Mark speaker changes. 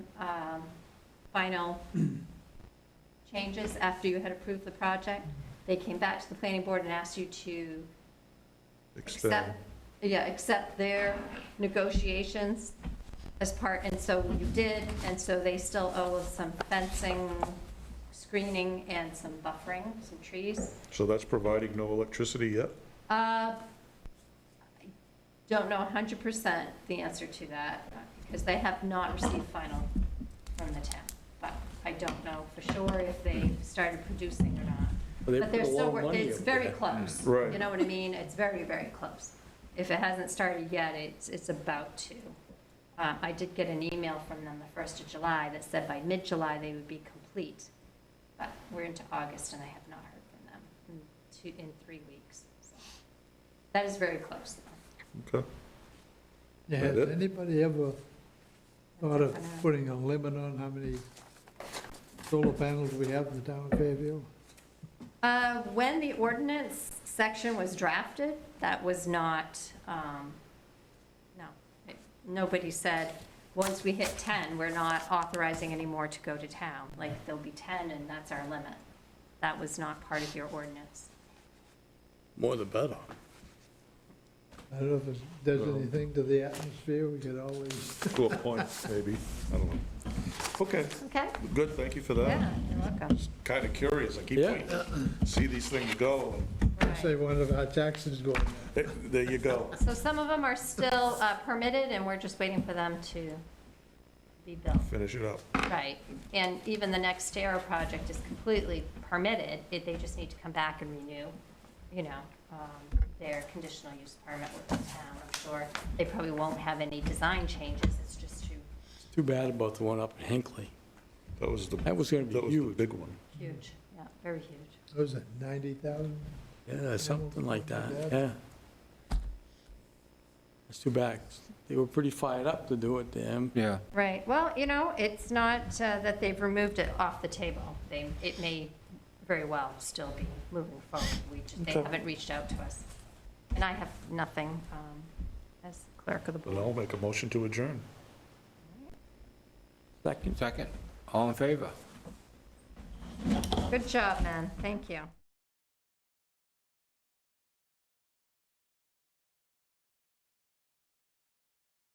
Speaker 1: um, final changes after you had approved the project. They came back to the planning board and asked you to accept, yeah, accept their negotiations as part, and so you did, and so they still owe us some fencing, screening, and some buffering, some trees.
Speaker 2: So that's providing no electricity yet?
Speaker 1: Uh, I Don't know 100% the answer to that, because they have not received final from the town. But I don't know for sure if they started producing or not.
Speaker 3: Well, they
Speaker 1: But they're
Speaker 3: put a lot
Speaker 1: still,
Speaker 3: of
Speaker 1: wor-
Speaker 3: money
Speaker 1: it's
Speaker 3: into
Speaker 1: very
Speaker 3: that.
Speaker 1: close.
Speaker 2: Right.
Speaker 1: You know what I mean? It's very, very close. If it hasn't started yet, it's, it's about to. Uh, I did get an email from them the 1st of July that said by mid-July they would be complete. But we're into August and I have not heard from them in two, in three weeks. so. That is very close though.
Speaker 2: Okay.
Speaker 4: Yeah, Has
Speaker 2: That-
Speaker 4: anybody ever thought of
Speaker 1: I know.
Speaker 4: putting a limit on how many solar panels we have in the town of Fairview?
Speaker 1: Uh, When the ordinance section was drafted, that was not, um, no, It- nobody said, once we hit 10, we're not authorizing anymore to go to town. Like, there'll be 10 and that's our limit. That was not part of your ordinance.
Speaker 3: More the better.
Speaker 4: I don't know if it does
Speaker 2: Well-
Speaker 4: anything to the atmosphere, we could always,
Speaker 2: To a point, maybe. I don't know. Okay,
Speaker 1: Okay?
Speaker 2: good, thank you for
Speaker 1: Yeah,
Speaker 2: that.
Speaker 1: you're welcome.
Speaker 2: Kind of curious, I keep
Speaker 3: Yeah.
Speaker 2: waiting to see these things go.
Speaker 4: say one of our taxes going up.
Speaker 2: There there you go.
Speaker 1: So some of them are still uh, permitted and we're just waiting for them to be built.
Speaker 2: Finish it up.
Speaker 1: Right, and even the next Nextera project is completely permitted, it- they just need to come back and renew, you know, um, their conditional use permit with the town, I'm sure. They probably won't have any design changes, it's just too
Speaker 3: Too bad about the one up in Hinckley.
Speaker 2: That was the, that
Speaker 3: That
Speaker 2: was
Speaker 3: was gonna be
Speaker 2: the
Speaker 3: huge.
Speaker 2: big one.
Speaker 1: huge, yeah, very huge.
Speaker 4: What was it, 90,000?
Speaker 3: Yeah, something like that,
Speaker 4: Yeah.
Speaker 3: yeah. It's too bad. They were pretty fired up to do it then.
Speaker 5: Yeah,
Speaker 1: Right, well, you know, it's not uh, that they've removed it off the table, they, it may very well still be moving forward, we, just- they
Speaker 2: Okay.
Speaker 1: haven't reached out to us. And I have nothing um, as clerk of the
Speaker 2: Then
Speaker 1: board.
Speaker 2: I'll make a motion to adjourn.
Speaker 3: Second?
Speaker 5: second. All in favor?
Speaker 1: Good job, man, thank you.